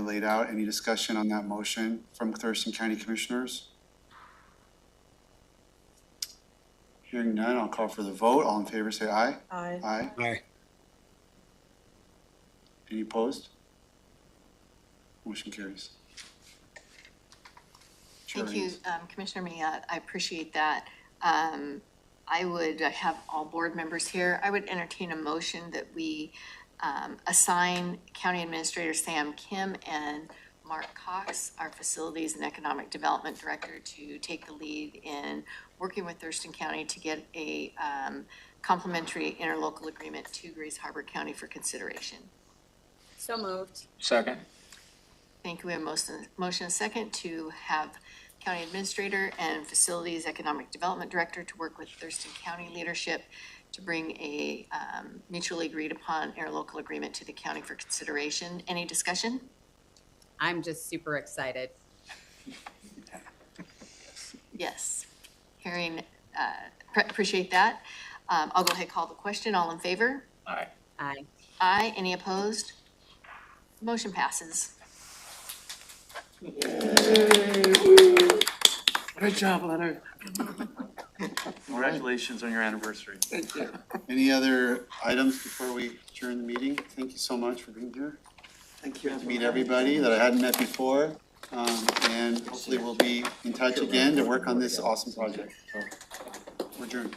laid out. Any discussion on that motion from Thurston County Commissioners? Hearing none, I'll call for the vote. All in favor, say aye. Aye. Aye. Aye. Any opposed? Motion carries. Thank Sherry. you, um, Commissioner Minniot. I appreciate that. Um, I would have all board members here. I would entertain a motion that we um, assign County Administrator Sam Kim and Mark Cox, our Facilities and Economic Development Director, to take the lead in working with Thurston County to get a um, complementary interlocal agreement to Grace Harbor County for consideration. So moved. Second. Thank you. We have motion, motion and second to have County Administrator and Facilities Economic Development Director to work with Thurston County leadership to bring a um, mutually agreed upon interlocal agreement to the county for consideration. Any discussion? I'm just super excited. Yes. Hearing, uh, pre- appreciate that. Um, I'll go ahead, and call the question. All in favor? Aye. Aye. Aye. Any opposed? Motion passes. Good job, Leonard. Congratulations on your anniversary. Thank you. Any other items before we adjourn the meeting? Thank you so much for being here. Thank you. to meet everybody that I hadn't met before. Um, and hopefully we'll be in touch again to work on this awesome project. So, We're adjourned.